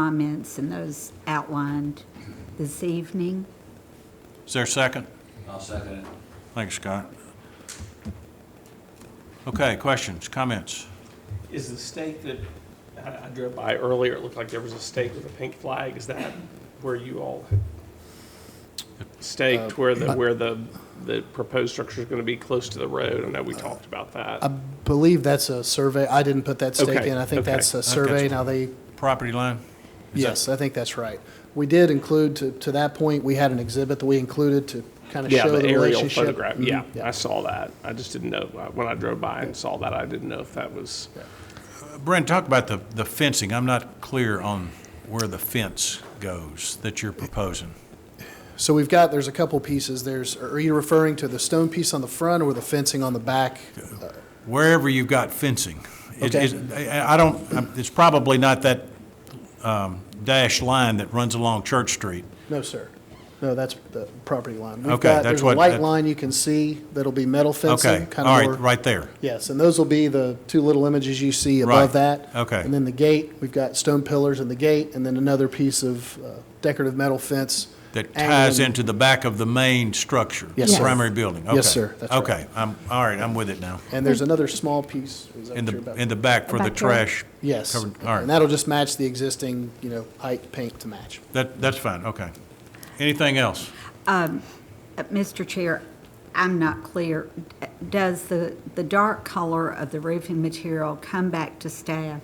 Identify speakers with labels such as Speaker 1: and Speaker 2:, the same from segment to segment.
Speaker 1: comments and those outlined this evening.
Speaker 2: Is there a second?
Speaker 3: I'll second it.
Speaker 2: Thanks, Scott. Okay, questions, comments?
Speaker 4: Is the stake that, I I drove by earlier, it looked like there was a stake with a pink flag, is that where you all had staked where the, where the, the proposed structure is going to be close to the road? I know we talked about
Speaker 5: I
Speaker 4: that.
Speaker 5: believe that's a survey. I didn't put that stake
Speaker 4: Okay,
Speaker 5: in. I think
Speaker 4: okay.
Speaker 5: that's a survey.
Speaker 2: that's-
Speaker 5: Now they,
Speaker 2: Property line? Is that-
Speaker 5: yes, I think that's right. We did include, to, to that point, we had an exhibit that we included to kind of
Speaker 4: Yeah,
Speaker 5: show
Speaker 4: the
Speaker 5: the
Speaker 4: aerial
Speaker 5: relationship.
Speaker 4: photograph,
Speaker 5: Mhm,
Speaker 4: yeah, I saw that. I just didn't know, uh, when I drove by and saw that, I didn't know if that was,
Speaker 2: Brent, talk about the, the fencing. I'm not clear on where the fence goes that you're proposing.
Speaker 5: So we've got, there's a couple pieces. There's, are you referring to the stone piece on the front or the fencing on the back?
Speaker 2: Wherever you've got fencing. It-
Speaker 5: Okay.
Speaker 2: it- I I don't, it's probably not that um, dashed line that runs along Church Street.
Speaker 5: No, sir. No, that's the property line. We've
Speaker 2: Okay,
Speaker 5: got-
Speaker 2: that's
Speaker 5: There's a
Speaker 2: what-
Speaker 5: light
Speaker 2: that-
Speaker 5: line you can see that'll be metal fencing.
Speaker 2: Okay,
Speaker 5: kinda
Speaker 2: all right,
Speaker 5: more-
Speaker 2: right there.
Speaker 5: Yes, and those will be the two little images you see
Speaker 2: Right,
Speaker 5: above that.
Speaker 2: okay.
Speaker 5: And then the gate, we've got stone pillars in the gate, and then another piece of uh, decorative metal fence.
Speaker 2: That ties
Speaker 5: angling-
Speaker 2: into the back of the main structure?
Speaker 5: Yes,
Speaker 2: the
Speaker 1: sir.
Speaker 2: Primary building?
Speaker 5: Yes,
Speaker 2: Okay.
Speaker 5: sir. That's right.
Speaker 2: Okay, I'm, all right, I'm with it now.
Speaker 5: And there's another small piece. is that
Speaker 2: In
Speaker 5: what you're
Speaker 2: the,
Speaker 5: about-
Speaker 2: in the back for the
Speaker 1: Back there.
Speaker 2: trash?
Speaker 5: Yes.
Speaker 2: covered- All
Speaker 5: And
Speaker 2: right,
Speaker 5: that'll just match the existing, you know, height paint to match.
Speaker 2: that, that's fine, okay. Anything else?
Speaker 1: Uh, Mr. Chair, I'm not clear. D- Does the, the dark color of the roofing material come back to staff?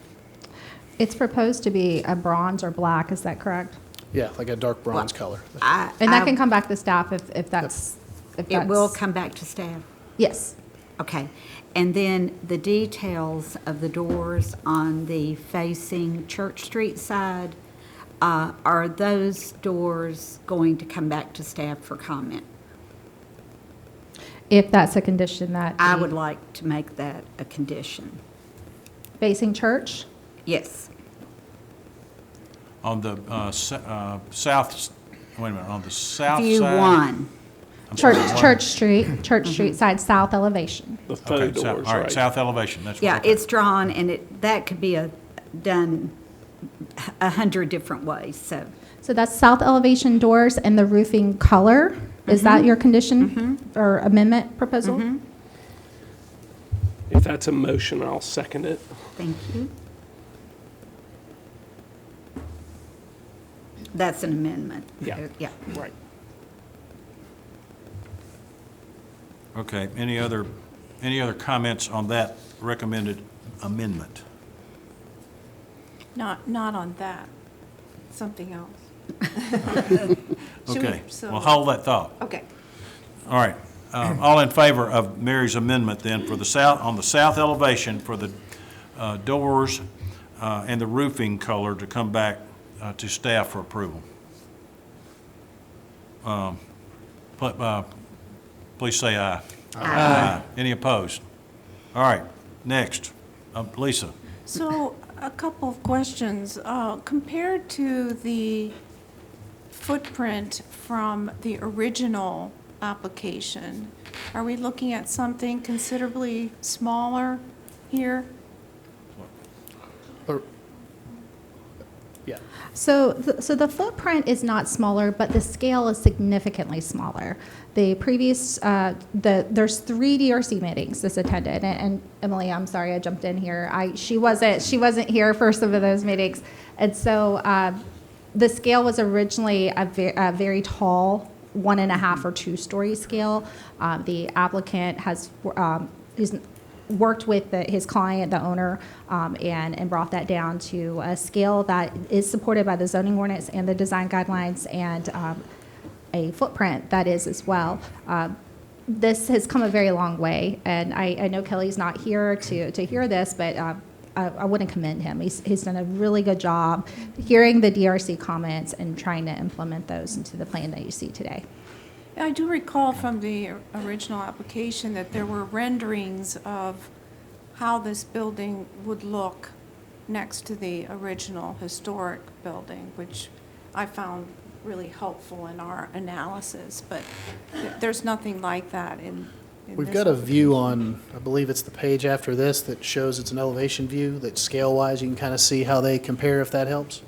Speaker 6: It's proposed to be a bronze or black, is that correct?
Speaker 5: Yeah, like a dark bronze color.
Speaker 1: I-
Speaker 6: And
Speaker 1: I-
Speaker 6: that can come back to staff if, if that's, if
Speaker 1: It will
Speaker 6: that's-
Speaker 1: come back to staff?
Speaker 6: Yes.
Speaker 1: Okay. And then the details of the doors on the facing Church Street side, uh, are those doors going to come back to staff for comment?
Speaker 6: If that's a condition that.
Speaker 1: I
Speaker 6: the-
Speaker 1: would like to make that a condition.
Speaker 6: Facing church,
Speaker 1: Yes.
Speaker 2: On the uh, s- uh, south, s- wait a minute, on the south side?
Speaker 1: View one.
Speaker 2: I'm sorry,
Speaker 6: church,
Speaker 2: what?
Speaker 6: church street, church
Speaker 1: Mm-hmm.
Speaker 6: street side, south elevation.
Speaker 4: the
Speaker 2: Okay,
Speaker 4: faux
Speaker 2: sou-
Speaker 4: doors,
Speaker 2: All right,
Speaker 4: right?
Speaker 2: south elevation, that's. what-
Speaker 1: Yeah,
Speaker 2: okay.
Speaker 1: it's drawn and it, that could be a, done a hundred different ways, so.
Speaker 6: So that's south elevation doors and the roofing color.
Speaker 1: Mm-hmm.
Speaker 6: Is that your condition or amendment proposal?
Speaker 4: If that's a motion, I'll second it.
Speaker 1: Thank you. That's an amendment.
Speaker 4: Yeah.
Speaker 1: Yeah.
Speaker 4: Right.
Speaker 2: Okay, any other, any other comments on that recommended amendment?
Speaker 7: Not, not on that, something else. Should we-
Speaker 2: Okay,
Speaker 7: so-
Speaker 2: well, hold that thought.
Speaker 7: Okay,
Speaker 2: All right. Um, All in favor of Mary's amendment then for the south, on the south elevation for the uh, doors uh, and the roofing color to come back uh, to staff for approval? Um, pl- uh, Please say aye. Aye. Any opposed? All right, next. Um, Lisa,
Speaker 7: so a couple of questions. Uh, Compared to the footprint from the original application, are we looking at something considerably smaller here?
Speaker 5: Or- Yeah,
Speaker 6: So, th- so the footprint is not smaller, but the scale is significantly smaller. The previous, uh, the there's three DRC meetings this attended, and, and Emily, I'm sorry I jumped in here. I she wasn't she wasn't here for some of those meetings, and so uh, the scale was originally a, ve- a very tall one and a half or two story scale. Um, the applicant has um, is worked with the, his client, the owner, um, and, and brought that down to a scale that is supported by the zoning ordinance and the design guidelines and um, a footprint that is as well. Um, this has come a very long way, and I, I know Kelly's not here to, to hear this, but um, I, I wouldn't commend him. He's, he's done a really good job hearing the DRC comments and trying to implement those into the plan that you see today.
Speaker 7: I do recall from the original application that there were renderings of how this building would look next to the original historic building, which I found really helpful in our analysis, but th- there's nothing like that in. in
Speaker 5: we've
Speaker 7: this
Speaker 5: got a
Speaker 7: application.
Speaker 5: view on, I believe it's the page after this that shows it's an elevation view, that scale-wise, you can kind of see how they compare if that helps.